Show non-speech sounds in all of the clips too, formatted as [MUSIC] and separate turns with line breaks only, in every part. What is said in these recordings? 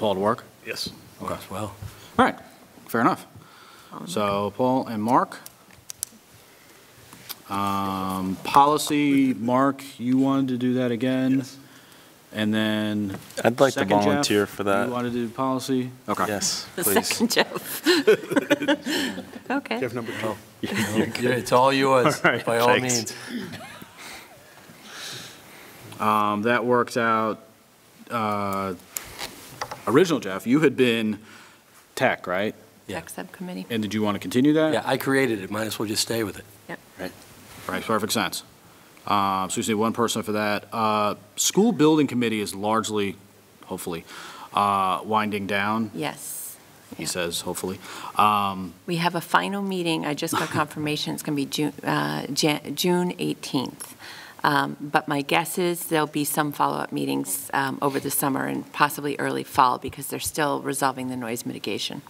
Paul to work?
Yes.
Okay. Well. All right, fair enough. So Paul and Mark. Um, Policy, Mark, you wanted to do that again?
Yes.
And then.
I'd like to
second, Jeff,
volunteer for that.
You wanted to do policy? Okay.
Yes,
The
please.
second [LAUGHS] Jeff. Okay.
Jeff number two.
Yeah, It's all yours,
[LAUGHS] All right,
by all
thanks.
means.
Um, That works out, uh, original Jeff, you had been tech, right?
Yeah.
Tech Subcommittee.
And did you want to continue that?
Yeah, I created it, might as well just stay with it.
Right, perfect sense. Uh, So we just need one person for that. Uh, School Building Committee is largely, hopefully, uh, winding down,
Yes.
he
Yeah.
says, hopefully. Um,
We have a final meeting. I just got confirmation it's going to be June, uh, Jan- June 18th. Um, But my guess is there'll be some follow-up meetings um, over the summer and possibly early fall because they're still resolving the noise mitigation.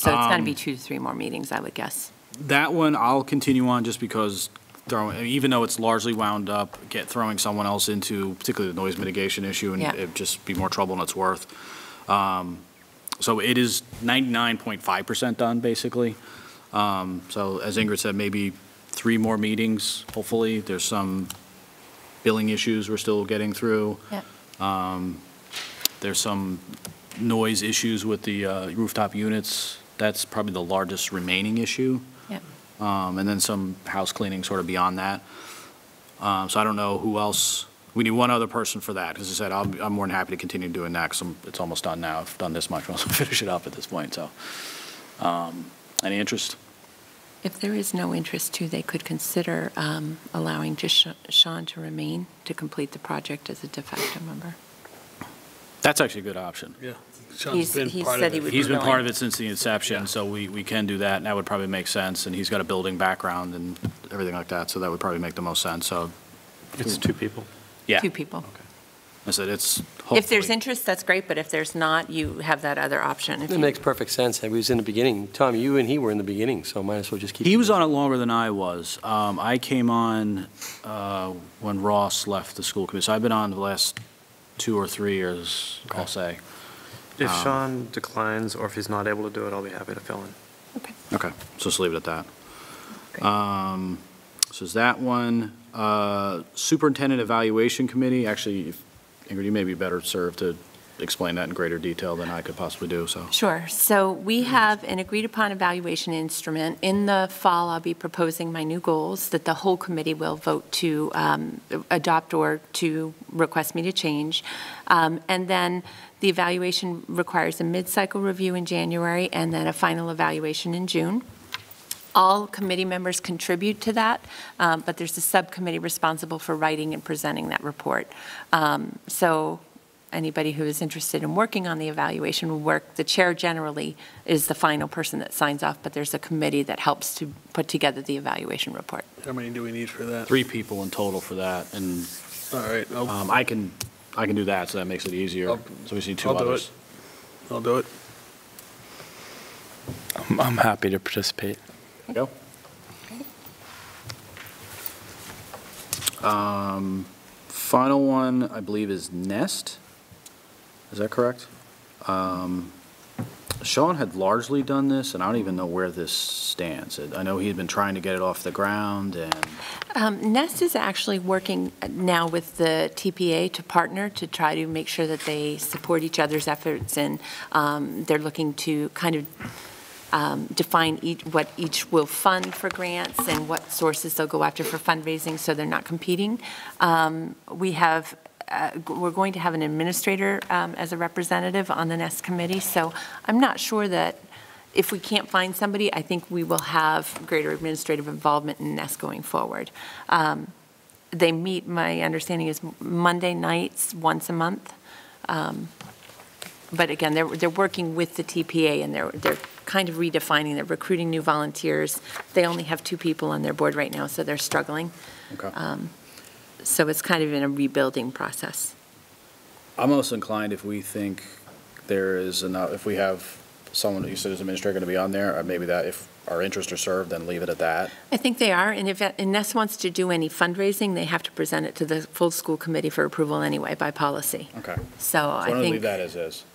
So it's going to be two to three more meetings, I would guess.
That one, I'll continue on just because throwing, even though it's largely wound up, get, throwing someone else into particularly the noise mitigation issue, and
Yeah.
it'd just be more trouble than it's worth. Um, So it is 99.5% done, basically. Um, So as Ingrid said, maybe three more meetings, hopefully. There's some billing issues we're still getting through.
Yeah.
There's some noise issues with the uh, rooftop units. That's probably the largest remaining issue
Yeah.
um, and then some house cleaning sort of beyond that. Um, So I don't know who else, we need one other person for that, because I said, I'll- I'm more than happy to continue doing that, because it's almost done now, I've done this much, [LAUGHS] I'll finish it up at this point, so. um, Any interest?
If there is no interest too, they could consider um, allowing just Sha- Sean to remain to complete the project as a de facto member.
That's actually a good option.
Yeah.
He's-
Sean's been
he
part
said
of
he would-
it.
He's been part of it since the inception, so we, we can do that, and that would probably make sense, and he's got a building background and everything like that, so that would probably make the most sense, so,
It's two people.
yeah.
Two people.
I said, it's
If there's
hopefully-
interest, that's great, but if there's not, you have that other option. If
It
you-
makes perfect sense, and we was in the beginning, Tom, you and he were in the beginning, so might as well just keep.
He was on it longer than I was. Um, I came on uh, when Ross left the school committee, so I've been on the last two or three years, I'll say.
If Sean declines, or if he's not able to do it, I'll be happy to fill in.
Okay.
Okay. So just leave it at that.
Great.
Um, So is that one. Uh, Superintendent Evaluation Committee, actually, if- Ingrid, you may be better served to explain that in greater detail than I could possibly do, so.
Sure. So we have an agreed-upon evaluation instrument. In the fall, I'll be proposing my new goals that the whole committee will vote to um, adopt or to request me to change. Um, And then the evaluation requires a mid-cycle review in January and then a final evaluation in June. All committee members contribute to that, um, but there's a subcommittee responsible for writing and presenting that report. Um, So anybody who is interested in working on the evaluation will work. The chair generally is the final person that signs off, but there's a committee that helps to put together the evaluation report.
How many do we need for that?
Three people in total for that, and
All right, I'll,
um, I can, I can do that, so that makes it easier. So we just need two
I'll do
others.
it. I'll do it.
I'm, I'm happy to participate.
Go. Um, Final one, I believe, is Nest. Is that correct? Um, Sean had largely done this, and I don't even know where this stands. I know he had been trying to get it off the ground, and
Um, Nest is actually working now with the TPA to partner to try to make sure that they support each other's efforts, and um, they're looking to kind of um, define each, what each will fund for grants and what sources they'll go after for fundraising, so they're not competing. Um, We have, uh, g- we're going to have an administrator um, as a representative on the Nest committee, so I'm not sure that if we can't find somebody, I think we will have greater administrative involvement in Nest going forward. Um, They meet, my understanding is Monday nights, once a month. Um, But again, they're, they're working with the TPA and they're, they're kind of redefining, they're recruiting new volunteers. They only have two people on their board right now, so they're struggling. Um, So it's kind of in a rebuilding process.
I'm most inclined if we think there is enough, if we have someone, you said is administrator going to be on there, or maybe that, if our interests are served, then leave it at that.
I think they are, and if Ness wants to do any fundraising, they have to present it to the full school committee for approval anyway by policy.
Okay. So
So I
I'm
think.
going to leave that as is.